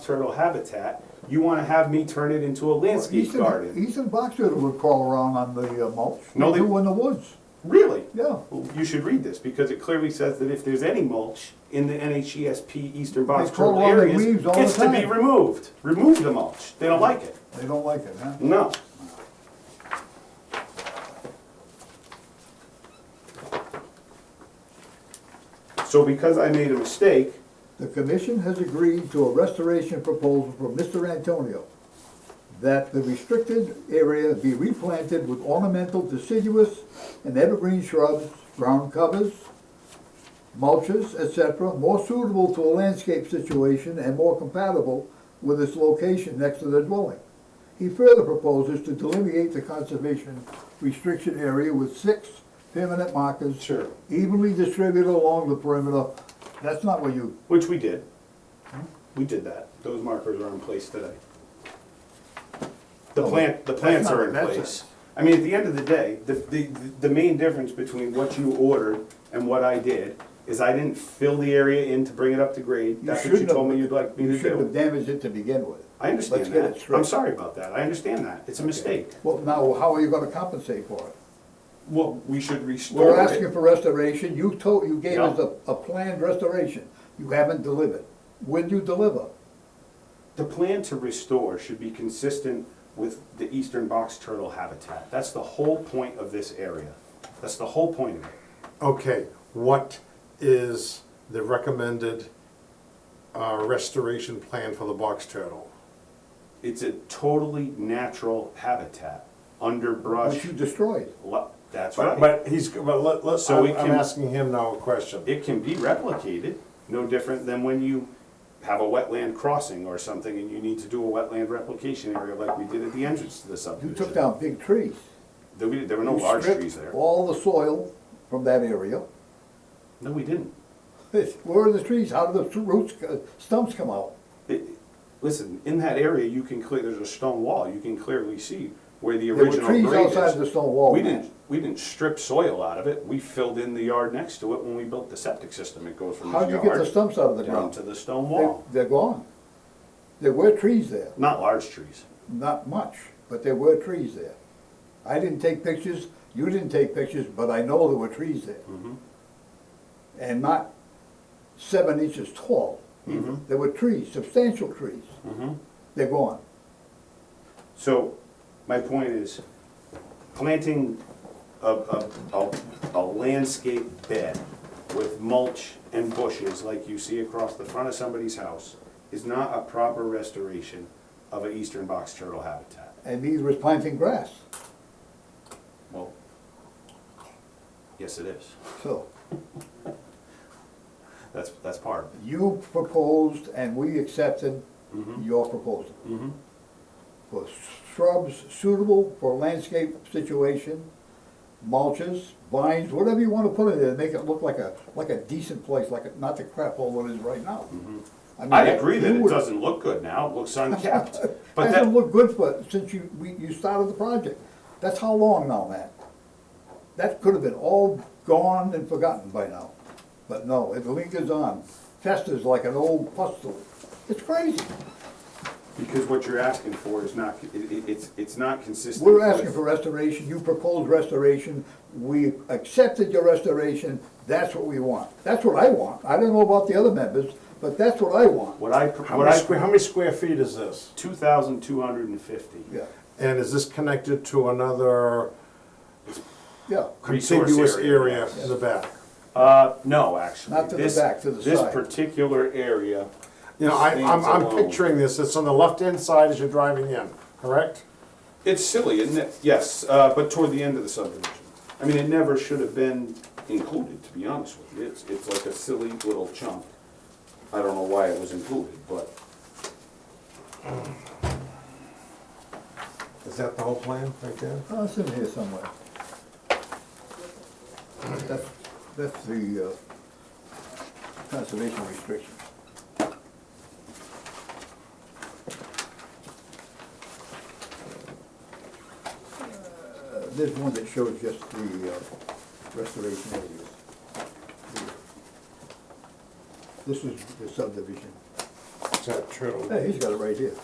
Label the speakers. Speaker 1: turtle habitat, you wanna have me turn it into a landscape
Speaker 2: Eastern-
Speaker 1: garden?
Speaker 2: Eastern box turtle would crawl around on the uh, mulch.
Speaker 1: No, they-
Speaker 2: do in the woods,
Speaker 1: Really?
Speaker 2: yeah.
Speaker 1: Well, You should read this, because it clearly says that if there's any mulch in the NHESP eastern box
Speaker 2: They pull
Speaker 1: turtle
Speaker 2: all the
Speaker 1: areas,
Speaker 2: leaves all the
Speaker 1: it's to be
Speaker 2: time.
Speaker 1: removed. Remove the mulch, they don't like it,
Speaker 2: They don't like it, huh?
Speaker 1: no. So because I made a mistake,
Speaker 2: The commission has agreed to a restoration proposal from Mr. Antonio that the restricted area be replanted with ornamental deciduous and evergreen shrubs, ground covers, mulches, etc., more suitable to a landscape situation and more compatible with its location next to the dwelling. He further proposes to delineate the conservation restriction area with six permanent markers
Speaker 1: sure,
Speaker 2: evenly distributed along the perimeter. That's not what you
Speaker 1: which we did.
Speaker 2: Hmm?
Speaker 1: We did that, those markers are in place today. The
Speaker 2: Oh,
Speaker 1: plant, the
Speaker 2: that's
Speaker 1: plants
Speaker 2: not-
Speaker 1: are in
Speaker 2: that's
Speaker 1: place. I mean, at the end of the day, the, the, the main difference between what you ordered and what I did is I didn't fill the area in to bring it up to grade, that's what you
Speaker 2: shouldn't have-
Speaker 1: told me you'd like me
Speaker 2: You
Speaker 1: to
Speaker 2: shouldn't have
Speaker 1: do.
Speaker 2: damaged it to begin with.
Speaker 1: I
Speaker 2: Let's
Speaker 1: understand
Speaker 2: get it
Speaker 1: that,
Speaker 2: straight.
Speaker 1: I'm sorry about that, I understand that, it's a mistake.
Speaker 2: Well, now, how are you gonna compensate for it?
Speaker 1: Well, we should restore
Speaker 2: We're
Speaker 1: it.
Speaker 2: asking for restoration, you told, you gave us
Speaker 1: Yeah.
Speaker 2: a, a planned restoration, you haven't delivered. When you deliver,
Speaker 1: The plan to restore should be consistent with the eastern box turtle habitat. That's the whole point of this area. That's the whole point of it.
Speaker 3: Okay, what is the recommended uh, restoration plan for the box turtle?
Speaker 1: It's a totally natural habitat, underbrush.
Speaker 2: which you destroyed.
Speaker 1: lo- That's
Speaker 3: But,
Speaker 1: right.
Speaker 3: but he's, but let, let,
Speaker 1: So we
Speaker 3: I'm I'm
Speaker 1: can-
Speaker 3: asking him now a question.
Speaker 1: It can be replicated, no different than when you have a wetland crossing or something and you need to do a wetland replication area like we did at the entrance to the
Speaker 2: You
Speaker 1: subdivision.
Speaker 2: took down big trees.
Speaker 1: There we- there were no
Speaker 2: You
Speaker 1: large
Speaker 2: stripped
Speaker 1: trees there.
Speaker 2: All the soil from that area.
Speaker 1: No, we didn't.
Speaker 2: Where are the trees, how do the roots, uh, stumps come out?
Speaker 1: It- Listen, in that area, you can clear, there's a stone wall, you can clearly see where the
Speaker 2: were
Speaker 1: original grade
Speaker 2: trees
Speaker 1: is.
Speaker 2: outside the stone wall,
Speaker 1: We
Speaker 2: Matt.
Speaker 1: didn't, we didn't strip soil out of it, we filled in the yard next to it when we built the septic system, it goes from
Speaker 2: How'd
Speaker 1: his
Speaker 2: you get the
Speaker 1: yard
Speaker 2: stumps out of the
Speaker 1: down
Speaker 2: ground?
Speaker 1: to the stone
Speaker 2: They-
Speaker 1: wall.
Speaker 2: They're gone. There were trees there.
Speaker 1: Not large trees.
Speaker 2: Not much, but there were trees there. I didn't take pictures, you didn't take pictures, but I know there were trees there. And not seven inches tall. There were trees, substantial trees. They're gone.
Speaker 1: So, my point is, planting a, a, a- a landscape bed with mulch and bushes like you see across the front of somebody's house is not a proper restoration of an eastern box turtle habitat.
Speaker 2: And these were planting grass,
Speaker 1: Well, yes, it is.
Speaker 2: so.
Speaker 1: That's, that's part of it.
Speaker 2: You proposed and we accepted
Speaker 1: Mm-hmm.
Speaker 2: your proposal. For shrubs suitable for landscape situation, mulches, vines, whatever you wanna put in there, make it look like a, like a decent place, like, a- not the crap hole it is right now. mean,
Speaker 1: Mm-hmm. I agree
Speaker 2: you
Speaker 1: that it
Speaker 2: would-
Speaker 1: doesn't look good now, it looks unkept, but
Speaker 2: Hasn't
Speaker 1: that,
Speaker 2: looked good for, since you, we, you started the project. That's how long now, Matt? That could have been all gone and forgotten by now. But no, it lingers on, festers like an old pustule. It's crazy.
Speaker 1: because what you're asking for is not, it, it- it's, it's not consistent.
Speaker 2: We're asking
Speaker 1: with-
Speaker 2: for restoration, you proposed restoration, we accepted your restoration, that's what we want. That's what I want. I don't know about the other members, but that's what I want.
Speaker 1: What I,
Speaker 3: How
Speaker 1: what I,
Speaker 3: many square, how many square feet is this?
Speaker 1: two thousand two hundred and fifty.
Speaker 2: Yeah,
Speaker 3: And is this connected to another
Speaker 2: yeah.
Speaker 1: Resource
Speaker 3: contiguous
Speaker 1: area.
Speaker 3: area in the back?
Speaker 1: Uh, no, actually.
Speaker 2: Not to the
Speaker 1: This-
Speaker 2: back, to the
Speaker 1: This
Speaker 2: side.
Speaker 1: particular area,
Speaker 3: You know, I, I'm,
Speaker 1: Stands
Speaker 3: I'm
Speaker 1: alone.
Speaker 3: picturing this, it's on the left-hand side as you're driving in, correct?
Speaker 1: it's silly, isn't it? Yes, uh, but toward the end of the subdivision. I mean, it never should have been included, to be honest with you. It's, it's like a silly little chunk. I don't know why it was included, but
Speaker 3: Is that the whole plan right there?
Speaker 2: Oh, it's in here somewhere. That's, that's the, uh, conservation restriction. Uh, There's one that shows just the uh, restoration areas. This is the subdivision.
Speaker 3: that true?
Speaker 2: Hey, he's got it right here.